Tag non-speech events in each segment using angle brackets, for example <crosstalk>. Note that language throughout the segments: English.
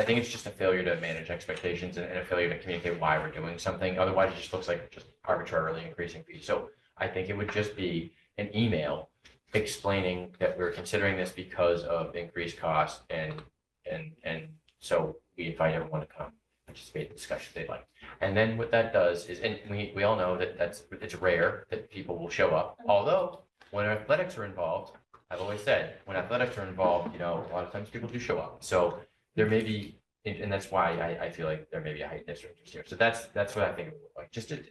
I think it's just a failure to manage expectations and and a failure to communicate why we're doing something. Otherwise, it just looks like just arbitrarily increasing fees. So I think it would just be an email explaining that we're considering this because of increased costs and, and, and so we invite everyone to come participate in the discussion if they'd like. And then what that does is, and we, we all know that that's, it's rare that people will show up, although when athletics are involved, I've always said, when athletics are involved, you know, a lot of times people do show up. So there may be, and, and that's why I, I feel like there may be a heightened district interest here. So that's, that's what I think, it would look like, just to,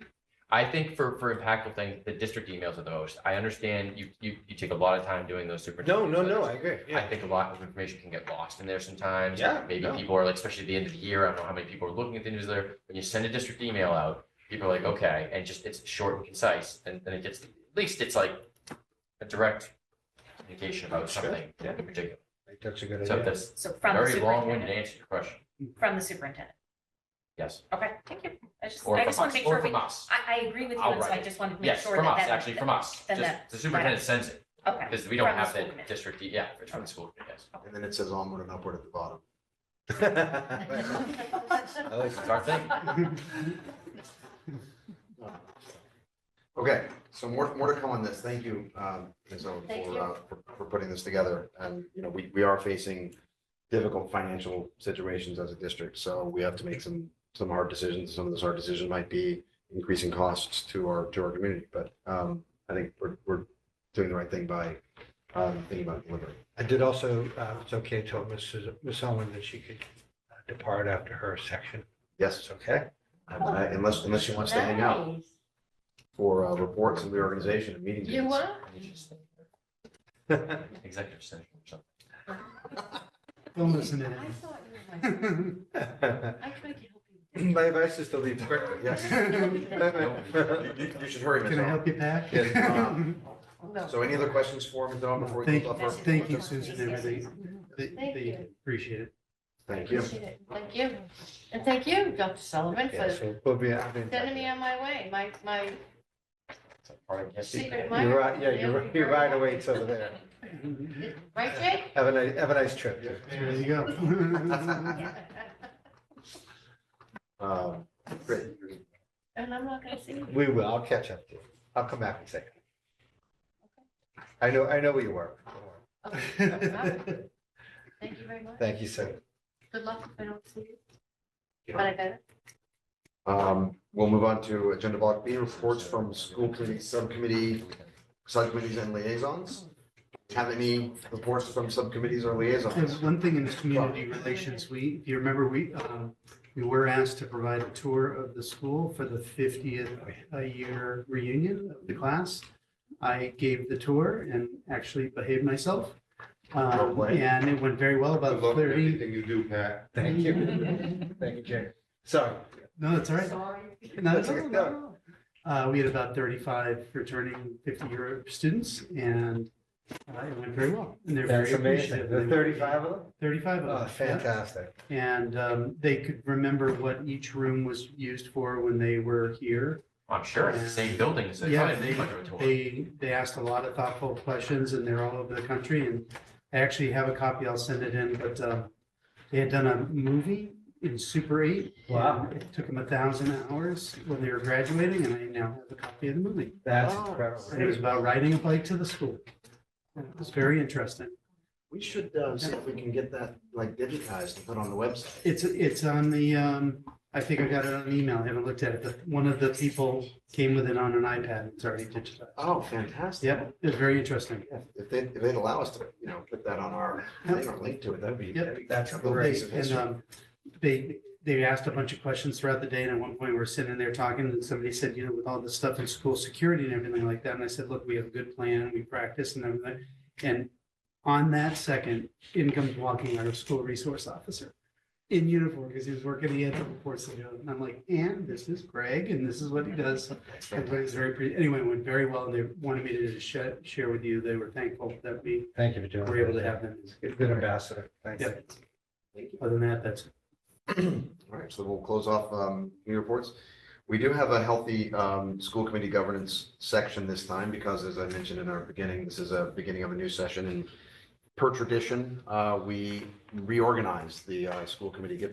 I think for, for impactful things, the district emails are the most. I understand you, you, you take a lot of time doing those super. No, no, no, I agree. I Yeah. think a lot of information can get lost in there sometimes. Yeah, Maybe no. people are like, especially at the end of the year, I don't know how many people are looking at the newsletter. When you send a district email out, people are like, okay, and just, it's short and concise, and then it gets, at least it's like a direct communication about Sure, something yeah. in particular. I think That's a good So idea. that's So from the very long-winded superintendent, answer to your question. from the superintendent. Yes. Okay, thank you. I just, Or I from just want us, to make or sure we, from I, us. I agree with you, I'll and so write I it. just wanted to make Yes, sure from that us, that. actually, from us. then Just that- the superintendent sends it, Okay, because we don't From the have school that committee. district, e, yeah, it's from the school, yes. And then it says onward and upward at the bottom. <laughs> I like It's our thing. Okay, so more, more to come on this. Thank you, um, Ms. Owen, Thank you. for, uh, for, for putting this together. And, you know, we, we are facing difficult financial situations as a district, so we have to make some, some hard decisions. Some of those hard decisions might be increasing costs to our, to our community, but, um, I think we're, we're doing the right thing by, um, thinking about delivery. I did also, uh, it's okay, told Mrs. Miss Owen that she could uh, depart after her section. <laughs> Yes, It's okay. um, I- unless, unless she wants to hang out for, uh, reports and reorganization and meeting You dates. are? <laughs> <laughs> Executive session or something. Don't listen <laughs> I thought you were my, I tried to help <clears throat> you. My advice is to leave quickly, yes. You, <laughs> you- you should hurry, Ms. Can I Owen. help you, Pat? <laughs> Yes, um, No. So any other questions for Ms. Owen before we Thank close you, off? our- thank you, Susan, and everything. They, Thank they you. appreciate it. Thank you. Appreciate it. Thank you. And thank you, Dr. Sullivan, Yeah, for so we'll be, I'll be in touch. sending me on my way, my, my It's like part of his secret. secret admirer. You're right, yeah, you're, right- you're right away, it's over there. Right, Jake? Have a nice, have a nice trip. There <laughs> you go. Um, Great. <laughs> And I'm not gonna see you. We will, I'll catch up to you. I'll come back and say. I know, I know where you were. Don't worry. Okay. Thank you very much. Thank you, sir. Good luck if I don't see you. But I better. Um, We'll move on to agenda block B, reports from school committee, subcommittee, subcommittees and liaisons. Have any reports from subcommittees or There's liaisons? one thing in this community relations, we, if you remember, we, um, we were asked to provide a tour of the school for the fiftieth year reunion of the class. I gave the tour and actually behaved myself. Um, and it went very well, about thirty. you do, Pat. Thank you. Thank you, Jay. Sorry. No, that's all right. Sorry. No, That's it's all okay. right. No, no, no. Uh, we had about thirty-five returning fifty-year students and uh, it went very well. And they're very That's amazing. appreciative. The They- thirty-five of them? Thirty-five Oh, of them. yeah. fantastic. And, um, they could remember what each room was used for when they were here. I'm sure it's the same building, so they Yeah, probably went to a tour. They, they asked a lot of thoughtful questions and they're all over the country and I actually have a copy. I'll send it in, but, um, they had done a movie in Super Eight. Wow. and It took them a thousand hours when they were graduating and I now have a copy of the movie. That's Wow. And it was incredible. about riding a bike to the school. And It was very interesting. We should uh, see if we can get that like digitized and put on the website. It's, it's on the, um, I think I got it on email. I haven't looked at it, but one of the people came with it on an iPad. It's already digitized. Oh, fantastic. Yeah, it was very interesting. Yeah, If they, if they'd allow us to, you know, put that on our, thing or link to it, that'd be. Yep. that'd be- That's that'd be a piece great. of And, history. um, they, they asked a bunch of questions throughout the day and at one point we we're sitting there talking and somebody said, you know, with all this stuff in school security and everything like that. And I said, look, we have a good plan. We practice and everything. And on that second, in comes walking our school resource officer in uniform because he was working, he had the reports to do. And I'm like, and this is Greg and this is what he does. So That's fantastic. Everybody's very, pre- anyway, it went very well and they wanted me to just share, share with you. They were thankful that we Thank you for doing. were able to have them. You're a Good ambassador. Thanks. Yeah. Other than that, that's All right, so we'll close off um, committee reports. We do have a healthy um, school committee governance section this time because, as I mentioned in our beginning, this is a beginning of a new session and per tradition, uh, we reorganized the uh, school committee, get